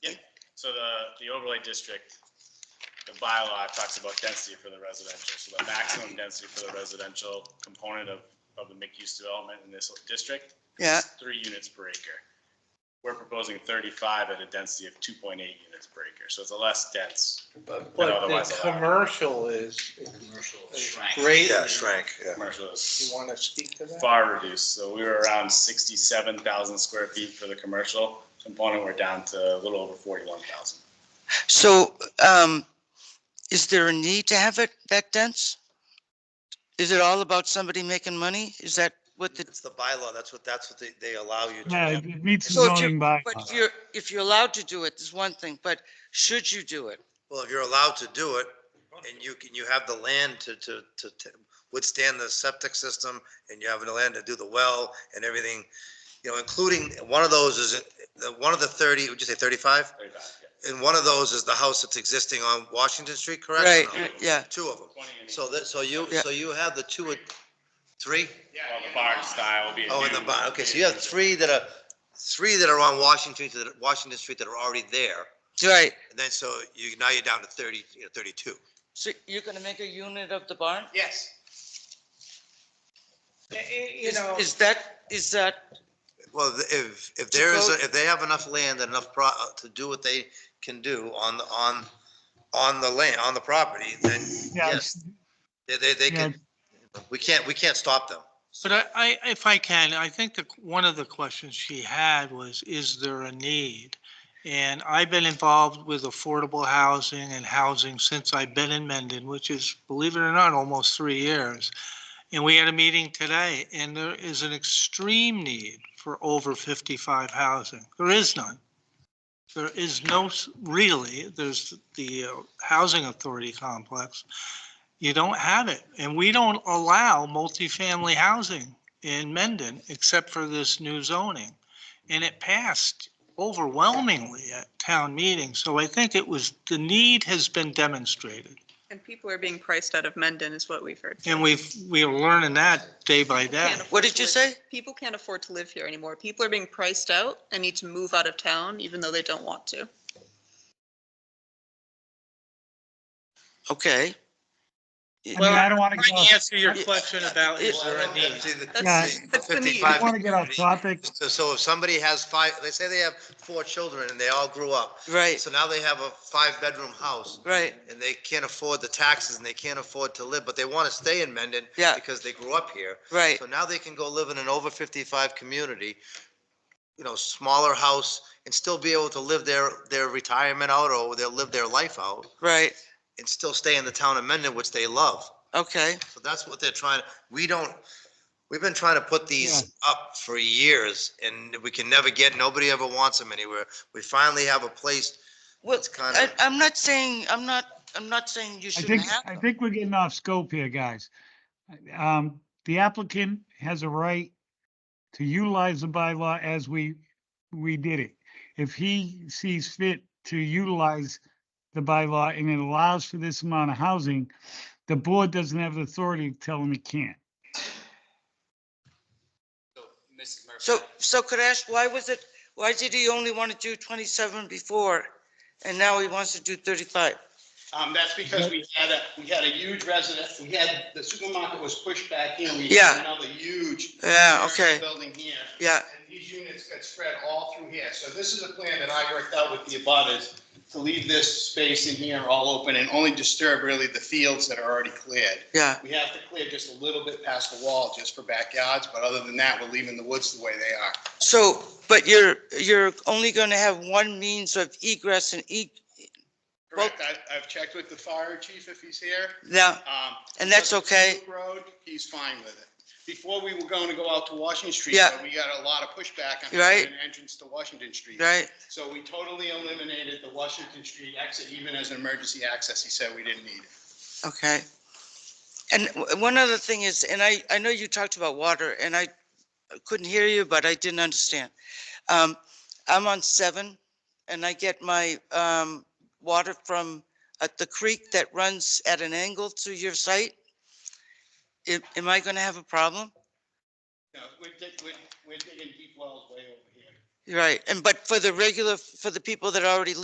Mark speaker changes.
Speaker 1: so the, the overlay district, the bylaw talks about density for the residential. So the maximum density for the residential component of, of the mixed-use development in this district
Speaker 2: Yeah,
Speaker 1: is three units per acre. We're proposing thirty-five at a density of two point eight units per acre, so it's a less dense
Speaker 3: But
Speaker 1: But
Speaker 3: but
Speaker 1: otherwise
Speaker 3: the
Speaker 1: allowed.
Speaker 3: commercial is is great.
Speaker 4: Yeah, shrank, yeah.
Speaker 1: commercial. is-
Speaker 3: You want to speak to that?
Speaker 1: far reduced. So we were around sixty-seven thousand square feet for the commercial component. We're down to a little over forty-one thousand.
Speaker 2: so, um, is there a need to have it that dense? Is it all about somebody making money? Is that what the,
Speaker 4: It's the bylaw, that's what, that's what they, they allow you
Speaker 5: Yeah, it
Speaker 4: to.
Speaker 5: it meets the
Speaker 2: So if you-
Speaker 5: zoning by.
Speaker 2: but if you're, if you're allowed to do it, there's one thing, but should you do it?
Speaker 4: Well, if you're allowed to do it, and you can, you have the land to, to, to to withstand the septic system, and you have the land to do the well and everything, you know, including, one of those is, the, one of the thirty, would you say thirty-five? And one of those is the house that's existing on Washington Street, correct?
Speaker 2: Right, right, yeah,
Speaker 4: Two of them. So that, so you,
Speaker 2: Yeah.
Speaker 4: so you have the two, and three?
Speaker 1: Well, the barn style will be. a
Speaker 4: Oh, in the
Speaker 1: new-
Speaker 4: bottom, okay, so you have three that are, three that are on Washington, that are- Washington Street that are already there.
Speaker 2: right.
Speaker 4: And then so you, now you're down to thirty, you know, thirty-two.
Speaker 2: So you're gonna make a unit of the barn?
Speaker 4: Yes.
Speaker 3: Eh, eh, You
Speaker 2: Is,
Speaker 3: know,
Speaker 2: is that, is that,
Speaker 4: Well, th- if, if there is,
Speaker 2: vote.
Speaker 4: a- if they have enough land and enough pro, uh, to do what they can do on, the on, on the land, on the property, then
Speaker 5: Yeah,
Speaker 4: yes,
Speaker 5: it's-
Speaker 4: they, they, they
Speaker 5: yeah,
Speaker 4: can, we can't, we can't stop them.
Speaker 5: But I, I, if I can, I think the, one of the questions she had was, is there a need? And I've been involved with affordable housing and housing since I've been in Mendon, which is, believe it or not, almost three years. And we had a meeting today and there is an extreme need for over 55 housing. There is none. There is no, s- really, there's the uh, Housing Authority complex. You don't have it. And we don't allow multifamily housing in Mendon, except for this new zoning. And it passed overwhelmingly at town meeting. So I think it was, the need has been demonstrated.
Speaker 6: And people are being priced out of Mendon is what we've heard.
Speaker 5: And we've, we are learning that day by
Speaker 6: People can't
Speaker 5: day.
Speaker 6: afford
Speaker 2: what did
Speaker 6: to
Speaker 2: you say?
Speaker 6: live- People can't afford to live here anymore. People are being priced out and need to move out of town even though they don't want to.
Speaker 2: Okay.
Speaker 5: I mean, I don't want to
Speaker 6: Well,
Speaker 5: go,
Speaker 6: I
Speaker 5: I
Speaker 6: answer your
Speaker 5: question about is there a need?
Speaker 4: See, the-
Speaker 5: Yeah.
Speaker 6: That's,
Speaker 4: the
Speaker 6: that's the need.
Speaker 4: 55
Speaker 5: want to get off topic.
Speaker 4: So, so if somebody has five, they say they have four children and they all grew up.
Speaker 2: Right,
Speaker 4: So now they have a five-bedroom house
Speaker 2: right,
Speaker 4: and they can't afford the taxes and they can't afford to live, but they want to stay in Mendon
Speaker 2: Yeah.
Speaker 4: because they grew up here.
Speaker 2: right.
Speaker 4: So now they can go live in an over fifty-five community, you know, smaller house and still be able to live their, their retirement out or they'll live their life out
Speaker 2: Right,
Speaker 4: and still stay in the town of Mendon, which they love.
Speaker 2: okay,
Speaker 4: So that's what they're trying, we don't, we've been trying to put these up for years and we can never get, nobody ever wants them anywhere. We finally have a place
Speaker 2: well,
Speaker 4: that's kind
Speaker 2: I,
Speaker 4: of,
Speaker 2: I'm not saying, I'm not, I'm not saying you
Speaker 5: I
Speaker 2: shouldn't
Speaker 5: think,
Speaker 2: have
Speaker 5: I
Speaker 2: them.
Speaker 5: think we're getting off scope here, guys. Um, the applicant has a right to utilize the bylaw as we, we did it. If he sees fit to utilize the bylaw and it allows for this amount of housing, the board doesn't have the authority to tell him he can't.
Speaker 2: So, so could I ask, why was it, why did he only want to do twenty-seven before? And now he wants to do thirty-five?
Speaker 7: Um, that's because we had a, we had a huge resident, we had, the supermarket was pushed back in. We
Speaker 2: Yeah.
Speaker 7: had another huge.
Speaker 2: Yeah, okay.
Speaker 7: Building here,
Speaker 2: Yeah,
Speaker 7: and these units got spread all through here. So this is a plan that I worked out with the abutters to leave this space in here all open and only disturb really the fields that are already cleared.
Speaker 2: yeah,
Speaker 7: We have to clear just a little bit past the wall just for backyards, but other than that, we're leaving the woods the way they are.
Speaker 2: so, but you're, you're only going to have one means of egress and e,
Speaker 7: Correct, I, I've checked with the fire chief if he's here.
Speaker 2: now,
Speaker 7: Um,
Speaker 2: and that's
Speaker 7: because of
Speaker 2: okay?
Speaker 7: Loop Road, he's fine with it. Before, we were going to go out to Washington Street,
Speaker 2: Yeah.
Speaker 7: but we got a lot of pushback on
Speaker 2: Right.
Speaker 7: having an entrance to Washington Street.
Speaker 2: right?
Speaker 7: So we totally eliminated the Washington Street exit, even as an emergency access, he said we didn't need it.
Speaker 2: Okay. And w- one other thing is, and I, I know you talked about water and I couldn't hear you, but I didn't understand. Um, I'm on seven and I get my, um, water from at the creek that runs at an angle to your site. Am- Am I going to have a problem?
Speaker 7: No, we're dig- we're, we're digging deep wells way over here.
Speaker 2: You're Right. And but for the regular, for the people that already live